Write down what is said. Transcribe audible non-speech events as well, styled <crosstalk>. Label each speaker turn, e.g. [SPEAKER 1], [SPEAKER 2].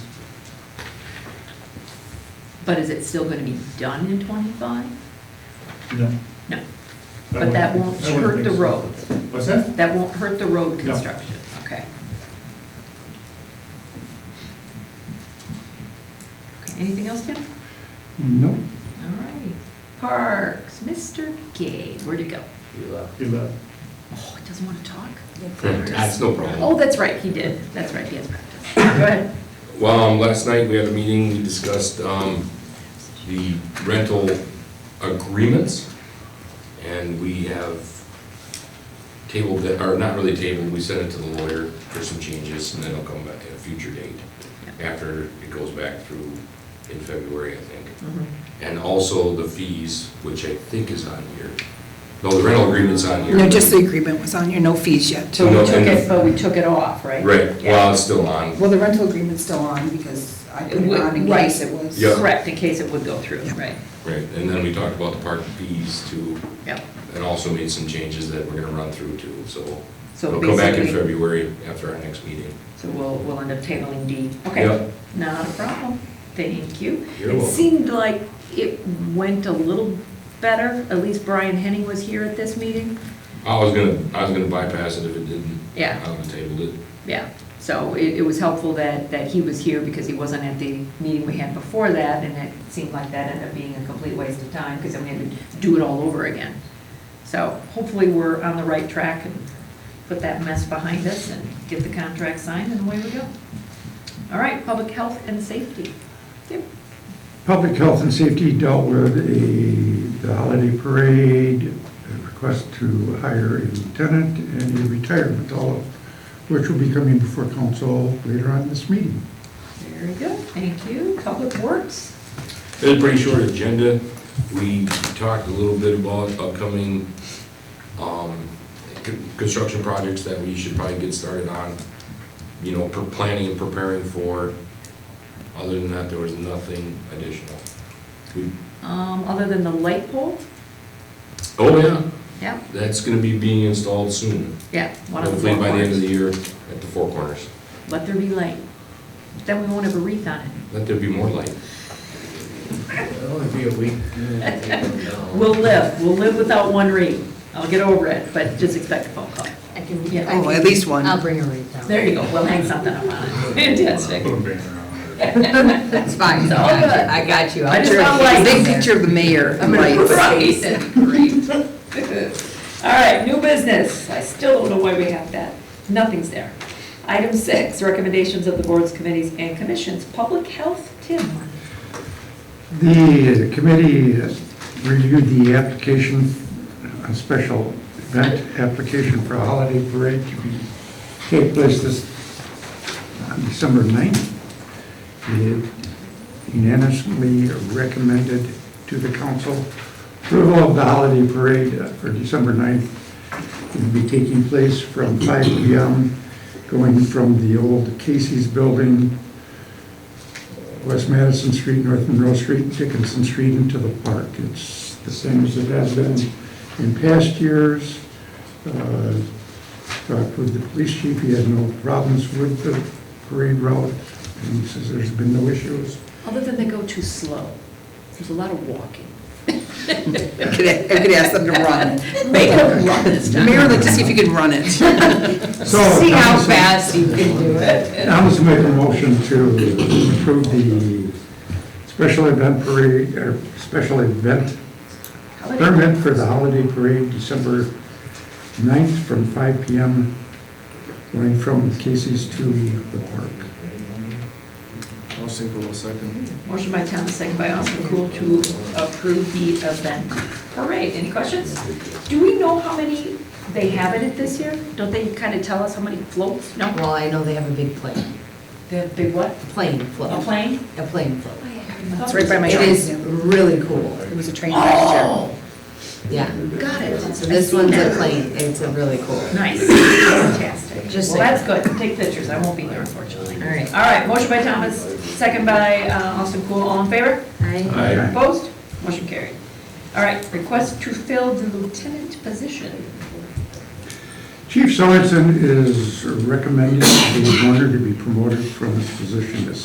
[SPEAKER 1] But is it still gonna be done in twenty-five?
[SPEAKER 2] No.
[SPEAKER 1] No.
[SPEAKER 2] I
[SPEAKER 1] But that
[SPEAKER 2] wouldn't-
[SPEAKER 1] won't
[SPEAKER 2] I wouldn't
[SPEAKER 1] hurt
[SPEAKER 2] think
[SPEAKER 1] the
[SPEAKER 2] so.
[SPEAKER 1] road.
[SPEAKER 2] What's that?
[SPEAKER 1] That won't hurt the road
[SPEAKER 2] No.
[SPEAKER 1] construction, okay? Okay, Anything else, Tim?
[SPEAKER 2] No.
[SPEAKER 1] All right. Parks, Mr. Gay, where'd he go?
[SPEAKER 3] You, uh,
[SPEAKER 2] You left.
[SPEAKER 1] Oh, he doesn't wanna talk?
[SPEAKER 3] That's no problem.
[SPEAKER 1] Oh, that's right, he did. That's right, he has practice. Go ahead.
[SPEAKER 3] Well, um, last night we had a meeting, we discussed, um, the rental agreements. And we have tabled it, or not really tabled, we sent it to the lawyer for some changes and then it'll come back at a future date. After it goes back through in February, I think.
[SPEAKER 1] Mhm.
[SPEAKER 3] And also the fees, which I think is on here. No, the rental agreement's on here.
[SPEAKER 4] No, just the agreement was on here, no fees yet.
[SPEAKER 1] <laughs> So
[SPEAKER 3] No,
[SPEAKER 1] we took
[SPEAKER 3] and-
[SPEAKER 1] it, but we took it off, right?
[SPEAKER 3] Right,
[SPEAKER 1] Yeah.
[SPEAKER 3] well, it's still on.
[SPEAKER 4] Well, the rental agreement's still on because I put it on in
[SPEAKER 1] Right.
[SPEAKER 4] case it was.
[SPEAKER 3] Yeah.
[SPEAKER 1] Correct, in case it would go through,
[SPEAKER 4] Yeah.
[SPEAKER 1] right?
[SPEAKER 3] Right, and then we talked about the park fees too,
[SPEAKER 1] Yep.
[SPEAKER 3] and also made some changes that we're gonna run through too, so.
[SPEAKER 1] So
[SPEAKER 3] We'll go back in
[SPEAKER 1] basically-
[SPEAKER 3] February after our next meeting.
[SPEAKER 1] So we'll, we'll end up tabling D. Okay,
[SPEAKER 3] Yep.
[SPEAKER 1] not a problem. Thank you.
[SPEAKER 3] You're
[SPEAKER 1] It
[SPEAKER 3] welcome.
[SPEAKER 1] seemed like it went a little better, at least Brian Henning was here at this meeting.
[SPEAKER 3] I was gonna, I was gonna bypass it if it didn't.
[SPEAKER 1] Yeah.
[SPEAKER 3] I would have tabled it.
[SPEAKER 1] Yeah, so it, it was helpful that, that he was here because he wasn't at the meeting we had before that, and it seemed like that ended up being a complete waste of time, because then we had to do it all over again. So hopefully we're on the right track and put that mess behind us and get the contract signed, and away we go. All right, public health and safety. Tim?
[SPEAKER 5] Public health and safety dealt with a, the holiday parade, a request to hire a lieutenant and a retirement, all of which will be coming before council later on this meeting.
[SPEAKER 1] Very good, thank you. Public Works?
[SPEAKER 3] It was a pretty short agenda. We talked a little bit about upcoming um, con- construction projects that we should probably get started on, you know, for planning and preparing for. Other than that, there was nothing additional. We-
[SPEAKER 1] Um, other than the light pole?
[SPEAKER 3] Oh, yeah,
[SPEAKER 1] Yeah,
[SPEAKER 3] that's gonna be being installed soon.
[SPEAKER 1] yeah, one of the
[SPEAKER 3] Hopefully by the end of
[SPEAKER 1] corners.
[SPEAKER 3] the year at the Four Corners.
[SPEAKER 1] Let there be light. Then we won't have a wreath on it.
[SPEAKER 3] Let there be more light.
[SPEAKER 6] It'll only be a week.
[SPEAKER 1] We'll live, we'll live without one read. I'll get over it, but just expect a phone call.
[SPEAKER 7] I can,
[SPEAKER 1] Yeah.
[SPEAKER 7] I
[SPEAKER 4] Oh,
[SPEAKER 7] can-
[SPEAKER 4] at least one.
[SPEAKER 7] I'll bring her right down.
[SPEAKER 1] There you go, we'll hang something up on it. Fantastic.
[SPEAKER 2] Put a banner on it.
[SPEAKER 4] That's fine,
[SPEAKER 1] It's all good.
[SPEAKER 7] I got you.
[SPEAKER 1] I
[SPEAKER 7] I'll
[SPEAKER 1] just
[SPEAKER 7] bring-
[SPEAKER 1] don't like-
[SPEAKER 4] Big picture of the mayor.
[SPEAKER 1] I'm gonna
[SPEAKER 4] lights.
[SPEAKER 1] Right. Great. All right, new business. I still don't know why we have that. Nothing's there. Item six, recommendations of the boards, committees, and commissions. Public health, Tim.
[SPEAKER 5] The committee reviewed the application, a special event application for a holiday parade to be, take place this, on December 9th. It unanimously recommended to the council approval of the holiday parade uh, for December 9th. It will be taking place from 5 PM, going from the old Casey's building West Madison Street, North Monroe Street, Dickinson Street into the park. It's the same as it has been in past years. Uh, Talked with the police chief, he had no problems with the parade route, and he says there's been no issues.
[SPEAKER 1] Other than they go too slow. There's a lot of walking.
[SPEAKER 4] I could I could ask them to run. <laughs>
[SPEAKER 1] Make them run this time.
[SPEAKER 4] Mayor, let's see if you can run it.
[SPEAKER 5] So,
[SPEAKER 4] <laughs>
[SPEAKER 7] See how
[SPEAKER 5] Thomas-
[SPEAKER 7] fast you can do it.
[SPEAKER 5] Thomas made a motion to approve the special event parade, or special event permit for the holiday parade, December 9th, from 5 PM, going from Casey's to the park.
[SPEAKER 6] I'll single a second.
[SPEAKER 1] Motion by Thomas, second by Austin Cool to approve the event parade. Any questions? Do we know how many they have it at this year? Don't they kind of tell us how many floats? No?
[SPEAKER 7] Well, I know they have a big plane,
[SPEAKER 1] They have big what?
[SPEAKER 7] plane
[SPEAKER 1] A
[SPEAKER 7] float,
[SPEAKER 1] plane?
[SPEAKER 7] a plane float.
[SPEAKER 4] It's right by my
[SPEAKER 7] It
[SPEAKER 4] train.
[SPEAKER 7] is really cool,
[SPEAKER 4] It was a train last year.
[SPEAKER 1] Oh,
[SPEAKER 7] yeah.
[SPEAKER 1] got it.
[SPEAKER 7] So this one's a plane, it's a really cool.
[SPEAKER 1] Nice, fantastic.
[SPEAKER 7] Just
[SPEAKER 1] Well,
[SPEAKER 7] saying.
[SPEAKER 1] that's good. Take pictures. I won't be there unfortunately.
[SPEAKER 7] All right.
[SPEAKER 1] All right, motion by Thomas, second by uh, Austin Cool. All in favor?
[SPEAKER 7] I,
[SPEAKER 5] Aye.
[SPEAKER 1] Opposed? Motion carried. All right, request to fill the lieutenant position.
[SPEAKER 5] Chief Sorensen is recommending the owner to be promoted from his position as